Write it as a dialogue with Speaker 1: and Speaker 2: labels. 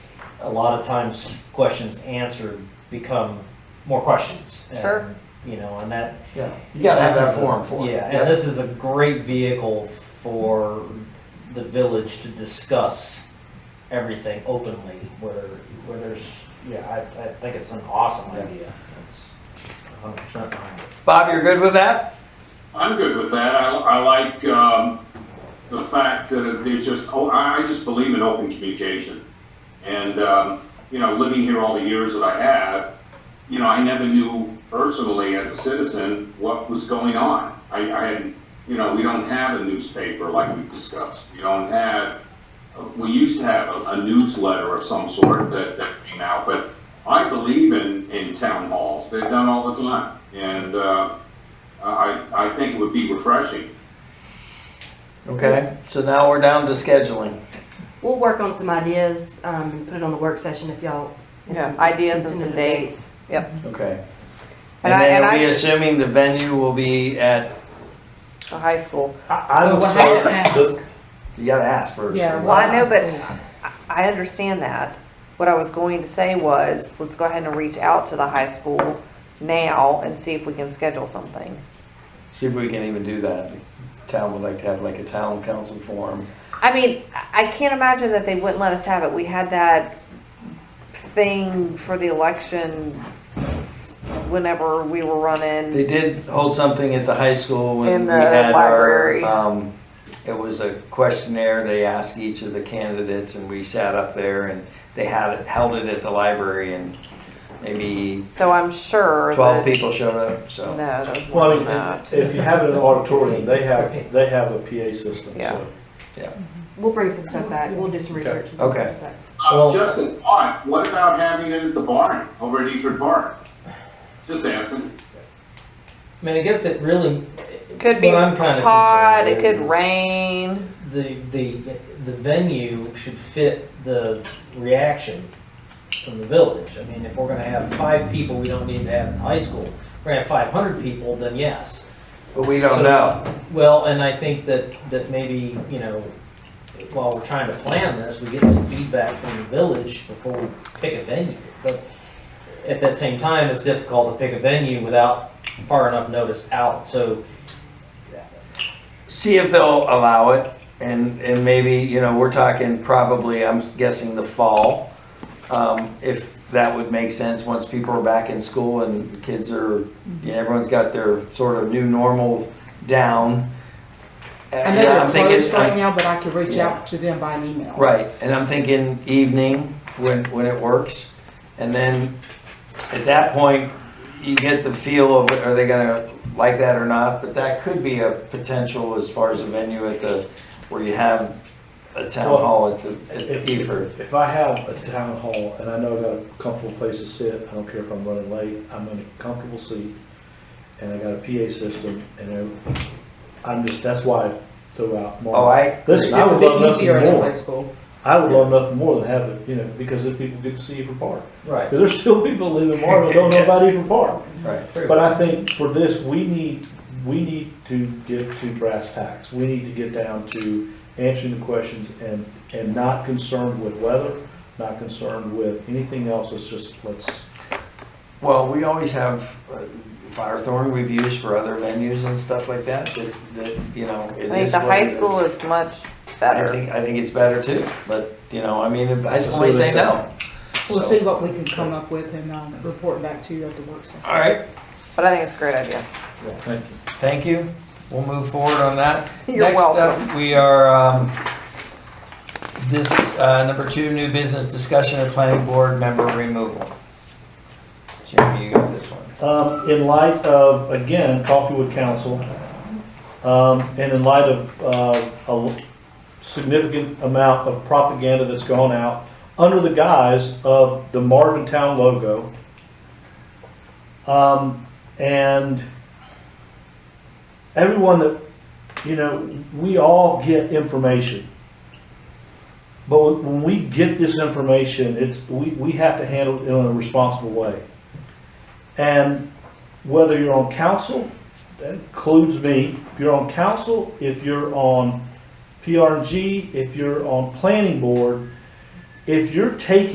Speaker 1: a lot of times questions answered become more questions. and,
Speaker 2: Sure.
Speaker 1: You know, and that.
Speaker 3: Yeah, you gotta have
Speaker 1: this
Speaker 3: that
Speaker 1: is a-
Speaker 3: forum for it.
Speaker 1: Yeah, and this is a great vehicle for the village to discuss everything openly where, where there's, yeah, I, I think it's an awesome idea. It's hundred percent behind it.
Speaker 3: Bob, you're good with that?
Speaker 4: I'm good with that. I, I like, um, the fact that it- there's just, oh, I, I just believe in open communication. And, um, you know, living here all the years that I have, you know, I never knew personally as a citizen what was going on. I, I had, you know, we don't have a newspaper like we discussed. We don't have, we used to have a, a newsletter of some sort that, that came out, but I believe in, in town halls. They're done all the time. And, uh, I, I think it would be refreshing.
Speaker 3: Okay, so now we're down to scheduling.
Speaker 5: We'll work on some ideas, um, and put it on the work session if y'all. and
Speaker 2: Yeah,
Speaker 5: some-
Speaker 2: ideas and some
Speaker 5: tentative
Speaker 2: dates. Yep.
Speaker 3: Okay.
Speaker 2: And
Speaker 3: And
Speaker 2: I-
Speaker 3: then
Speaker 2: and
Speaker 3: are
Speaker 2: I-
Speaker 3: we assuming the venue will be at,
Speaker 2: The high school.
Speaker 3: I-
Speaker 6: Well,
Speaker 3: I'm
Speaker 6: we'll have to
Speaker 3: sorry.
Speaker 6: ask.
Speaker 3: Oh, this- You gotta ask first.
Speaker 6: Yeah,
Speaker 2: Well, I know,
Speaker 6: Wow.
Speaker 2: but I understand that. What I was going to say was, let's go ahead and reach out to the high school now and see if we can schedule something.
Speaker 3: See if we can even do that. Town would like to have like a town council forum.
Speaker 2: I mean, I I can't imagine that they wouldn't let us have it. We had that thing for the election whenever we were running.
Speaker 3: They did hold something at the high school when
Speaker 2: In
Speaker 3: we
Speaker 2: the
Speaker 3: had our,
Speaker 2: library.
Speaker 3: um, it was a questionnaire, they asked each of the candidates and we sat up there and they had, it held it at the library and maybe
Speaker 2: So I'm sure
Speaker 3: twelve
Speaker 2: that,
Speaker 3: people showed up,
Speaker 2: no,
Speaker 3: so.
Speaker 2: those
Speaker 7: Well, I
Speaker 2: were
Speaker 7: mean,
Speaker 2: not.
Speaker 7: if- if you have it in an auditorium, they have, they have a PA system,
Speaker 2: Yeah.
Speaker 7: so.
Speaker 5: We'll bring some stuff back, we'll do some research. and bring some
Speaker 3: Okay.
Speaker 5: stuff back.
Speaker 4: Uh,
Speaker 1: Well-
Speaker 4: Just a thought, what about having it at the barn, over at Eford Park? Just asking.
Speaker 1: I mean, I guess it really.
Speaker 2: Could be
Speaker 1: what I'm kinda
Speaker 2: hot, it
Speaker 1: concerned
Speaker 2: could
Speaker 1: is
Speaker 2: rain.
Speaker 1: The, the, the venue should fit the reaction from the village. I mean, if we're gonna have five people, we don't need to have in high school. If we're gonna have five hundred people, then yes.
Speaker 3: But we don't
Speaker 1: So-
Speaker 3: know.
Speaker 1: Well, and I think that, that maybe, you know, while we're trying to plan this, we get some feedback from the village before we pick a venue. But at that same time, it's difficult to pick a venue without far enough notice out, so.
Speaker 3: See if they'll allow it and, and maybe, you know, we're talking probably, I'm guessing the fall. Um, if that would make sense, once people are back in school and kids are,
Speaker 6: Mm-hmm.
Speaker 3: yeah, everyone's got their sort of new normal down.
Speaker 6: I know
Speaker 3: Yeah,
Speaker 6: they're
Speaker 3: I'm thinking-
Speaker 6: closed right now, but I could reach
Speaker 3: Yeah.
Speaker 6: out to them by an email.
Speaker 3: Right, and I'm thinking evening when, when it works. And then at that point, you get the feel of, are they gonna like that or not? But that could be a potential as far as a venue at the, where you have a town hall at the, at
Speaker 7: If,
Speaker 3: Eford.
Speaker 7: if I have a town hall and I know I got a comfortable place to sit, I don't care if I'm running late, I'm in a comfortable seat, and I got a PA system, and I- I'm just, that's why I throw out more.
Speaker 3: Oh, I,
Speaker 7: Listen, I
Speaker 6: It
Speaker 7: would
Speaker 6: would be
Speaker 7: love nothing
Speaker 6: easier in a high
Speaker 7: more,
Speaker 6: school.
Speaker 7: I would love nothing more than have it, you know, because if people get to see Eford Park.
Speaker 1: Right.
Speaker 7: Because there's still people that live in Marvin that don't know about Eford Park.
Speaker 3: right,
Speaker 7: But I think for this, we need, we need to get to brass tacks. We need to get down to answering the questions and, and not concerned with weather, not concerned with anything else. It's just, let's,
Speaker 3: well, we always have uh, Firethorn we've used for other venues and stuff like that, that, that, you know.
Speaker 2: I think the high school is much
Speaker 3: I
Speaker 2: better.
Speaker 3: think, I think it's better too, but, you know, I mean, if high school, they
Speaker 7: So
Speaker 3: say
Speaker 7: there's that.
Speaker 3: no.
Speaker 6: We'll
Speaker 3: So-
Speaker 6: see what we can come up with and, um, report back to you at the work session.
Speaker 3: All right,
Speaker 2: But I think it's a great idea.
Speaker 7: thank you.
Speaker 3: Thank you. We'll move forward on that.
Speaker 2: You're
Speaker 3: Next
Speaker 2: welcome.
Speaker 3: up, we are, um, this, uh, number two, new business discussion of planning board member removal. Jeremy, you got this one.
Speaker 7: Um, in light of, again, Coffeewood Council, um, and in light of, uh, a l- significant amount of propaganda that's gone out under the guise of the Marvin Town logo. Um, and everyone that, you know, we all get information. But when we get this information, it's, we, we have to handle it in a responsible way. And whether you're on council, that includes me, if you're on council, if you're on PRG, if you're on planning board, if you're taking